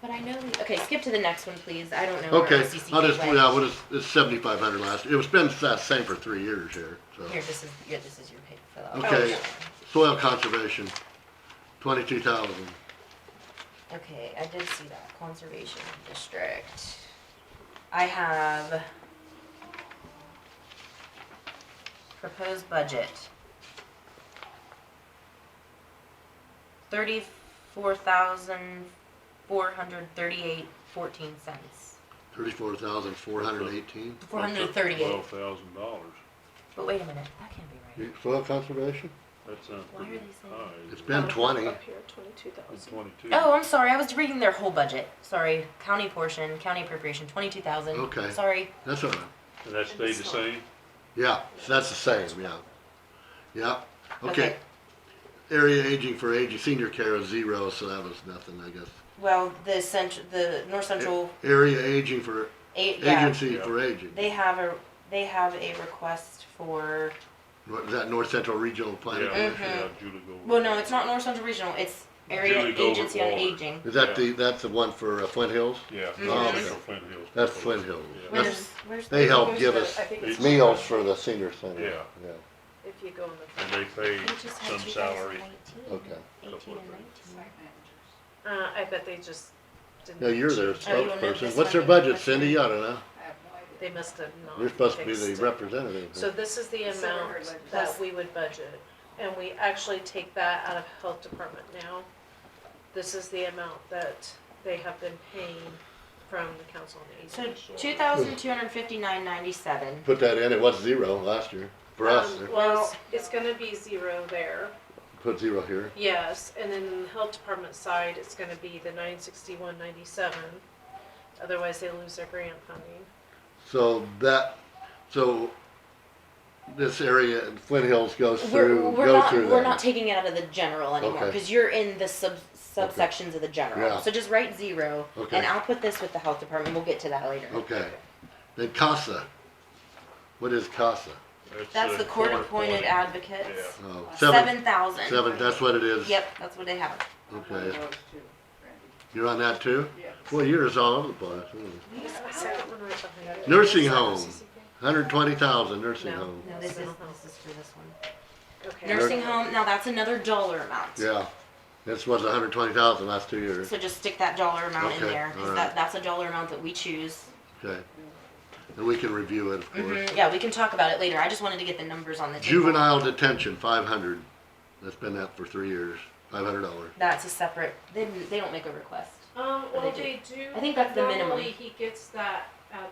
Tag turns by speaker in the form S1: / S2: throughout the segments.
S1: But I know, the- okay, skip to the next one, please. I don't know. where
S2: Okay,
S1: OCC
S2: I'll just,
S1: gateway-
S2: yeah, what is, it's seventy-five hundred last, it was been the same for three years here, so.
S1: Here, this is, yeah, this is your paper fill out.
S2: Okay, soil conservation, twenty-two thousand.
S1: Okay, I did see that, conservation district. I have proposed budget. Thirty-four thousand, four hundred thirty-eight, fourteen cents.
S2: Thirty-four thousand four hundred eighteen.
S1: Four hundred thirty-eight,
S3: Twelve thousand dollars.
S1: but wait a minute, that can't be right.
S2: Soil conservation?
S3: That sounds
S1: Why are
S3: pretty
S1: they saying-
S3: high.
S2: It's been twenty.
S4: Up here, twenty-two thousand.
S3: Twenty-two.
S1: Oh, I'm sorry, I was reading their whole budget, sorry, county portion, county appropriation, twenty-two thousand.
S2: Okay.
S1: Sorry,
S2: That's all right.
S3: And that stayed the same?
S2: Yeah, so that's the same, yeah. Yeah, okay.
S1: Okay.
S2: Area aging for aging, senior care is zero, so that was nothing, I guess.
S1: well, the central, the north central,
S2: Area aging for,
S1: eight, yeah.
S2: agency for aging.
S1: They have a, they have a request for,
S2: What, Is that North Central Regional Planning
S3: Yeah, we should
S2: Commission?
S3: have Julie go.
S1: mm-hmm. well, no, it's not North Central Regional, it's Area
S3: Julie Goldberg
S1: Agency on
S3: Waller.
S1: Aging.
S2: Is that the, that's the one for uh, Flint Hills?
S3: Yeah.
S1: Mhm.
S3: that's Flint Hills.
S2: That's Flint Hills.
S3: Yeah.
S2: That's-
S1: Where's, where's,
S2: They help
S4: There's
S2: give
S4: the-
S2: us
S4: I think it's-
S2: Meals for the senior center.
S3: Yeah.
S4: If you go in the,
S3: And they pay some salary.
S2: Okay.
S3: Couple of things.
S4: uh, I bet they just didn't.
S2: No, you're their
S1: Oh, you want
S2: spokesperson.
S1: this
S2: What's their
S1: one?
S2: budget, Cindy? I don't know.
S4: They must have not.
S2: You're supposed to be the
S4: fixed it.
S2: representative.
S4: So this is the
S5: It's never
S4: amount
S5: heard
S4: that we would budget, and we actually take that out of health department now. This is the amount that they have been paying from the council on aging.
S1: so two thousand two hundred fifty-nine ninety-seven.
S2: Put that in, it was zero last year, for us,
S4: Um,
S2: there.
S4: Well, it's- it's gonna be zero there,
S2: put zero here.
S4: yes, and then in the health department side, it's gonna be the nine sixty-one ninety-seven. Otherwise, they lose their grant funding.
S2: So that, so this area, in Flint Hills goes
S1: We're,
S2: through,
S1: we're
S2: goes
S1: not,
S2: through
S1: we're not
S2: that.
S1: taking it out of the general anymore,
S2: Okay.
S1: cause you're in the sub, subsections of the
S2: Yeah.
S1: general. So just write zero,
S2: Okay.
S1: and I'll put this with the health department, we'll get to that later.
S2: Okay. Then CASA. What is CASA?
S1: That's the
S3: uh,
S1: court-appointed
S3: Yeah.
S1: advocates.
S2: Oh,
S1: Seven thousand.
S2: Seven, that's what it is?
S1: Yep, that's what they have.
S2: Okay. You're on that too?
S5: Yeah.
S2: Well, yours all over the place. hmm.
S4: The second one right behind it.
S2: Nursing
S4: Is that
S2: home.
S4: CCP?
S2: 120,000 nursing
S4: No.
S2: home.
S1: No,
S4: No,
S1: this is,
S4: mental health.
S1: this is for this one.
S4: Okay.
S1: Nursing home, now that's another dollar amount.
S2: Yeah. This was 120,000 last two years.
S1: So just stick that dollar amount in
S2: Okay,
S1: there, cause
S2: alright.
S1: that, that's a dollar amount that we choose.
S2: Okay. And we can review it, of course.
S1: Mhm, Yeah, we can talk about it later, I just wanted to get the numbers on the table.
S2: Juvenile detention, 500. That's been that for three years. $500.
S1: That's a separate, they, didn't- they don't make a request.
S4: Um,
S1: Or they
S4: well, they do.
S1: I think that's the minimum.
S4: Normally, he gets that at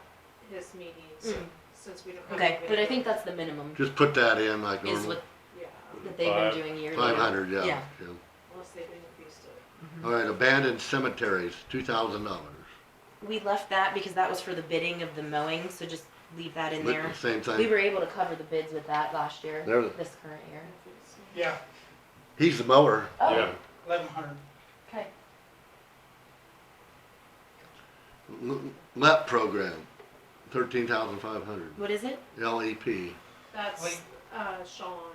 S4: his meetings,
S1: Mm.
S4: since we don't. have
S1: Okay,
S4: a
S1: but I
S4: video.
S1: think that's the minimum,
S2: Just put that in like
S1: is
S2: normal.
S1: what,
S4: Yeah,
S1: that they've been
S3: Five-
S1: doing yearly.
S2: 500, yeah.
S1: Yeah.
S2: yeah.
S4: unless they've increased it.
S2: All right, abandoned cemeteries, $2,000.
S1: We left that because that was for the bidding of the mowing, so just leave that in
S2: But
S1: there.
S2: Same
S1: We
S2: thing.
S1: were able to cover the bids with that last year,
S2: There-
S1: this current year.
S6: Yeah,
S2: He's the mower.
S1: Oh,
S3: Yeah.
S6: eleven hundred.
S1: okay.
S2: L- LEP program, 13,500.
S1: What is it?
S2: LEP.
S4: That's,
S6: Wait.
S4: uh, Sean.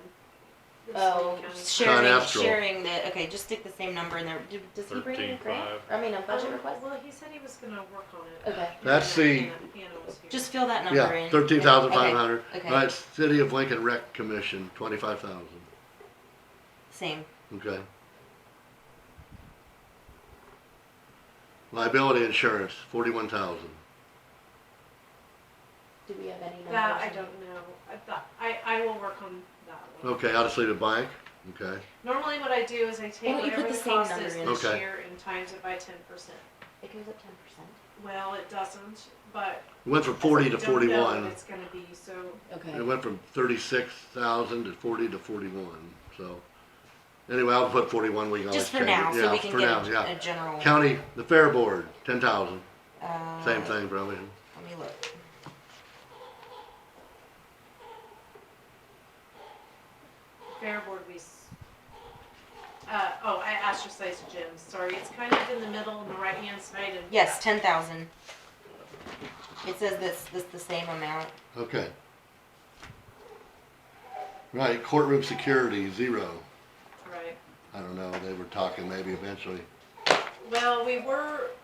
S4: the
S1: Oh,
S4: city
S2: Con
S4: county.
S1: sharing,
S2: Astral.
S1: sharing the, okay, just stick the same number in there. Do- Does he bring in a grant?
S3: 13.5.
S1: I mean, a budget
S4: Um,
S1: request?
S4: Well, he said he was gonna work on it.
S1: Okay,
S2: That's
S4: Hannah-
S2: the-
S4: Hannah- Hannah was here.
S1: just fill that number in.
S2: Yeah, thirteen thousand five hundred.
S1: Okay, okay.
S2: All right, City of Lincoln Rec Commission, twenty-five thousand,
S1: Same.
S2: okay. Liability insurance, forty-one thousand.
S1: Do we have any numbers?
S4: That, I don't know, I thought, I, I will work on that one.
S2: Okay, out of City bank, okay.
S4: Normally what I do is I take
S1: Why don't you put
S4: whatever
S1: the
S4: the
S1: same
S4: cost
S1: number
S4: is
S1: in?
S4: this
S2: Okay.
S4: year and times it by ten percent.
S1: It goes up ten percent.
S4: Well, it doesn't, but.
S2: It Went from forty to
S4: we don't know what
S2: forty-one.
S4: It's gonna be, so
S2: It went from thirty-six thousand to forty to forty-one, so. Anyway, I'll put forty-one, we can always
S1: Just for
S2: change it.
S1: now, so
S2: Yeah,
S1: we can
S2: for now,
S1: get a-
S2: yeah.
S1: a general.
S2: County, the Fair Board, ten thousand,
S1: uh,
S2: same thing probably.
S1: Let me look.
S4: Fair Board, we, s- uh, oh, I ostracized Jim, sorry, it's kind of in the middle on the right-hand side and.
S1: Yes, ten thousand. It says this, this the same amount.
S2: Okay. Right, courtroom security, zero.
S4: Right,
S2: I don't know, they were talking maybe eventually.
S4: well, we were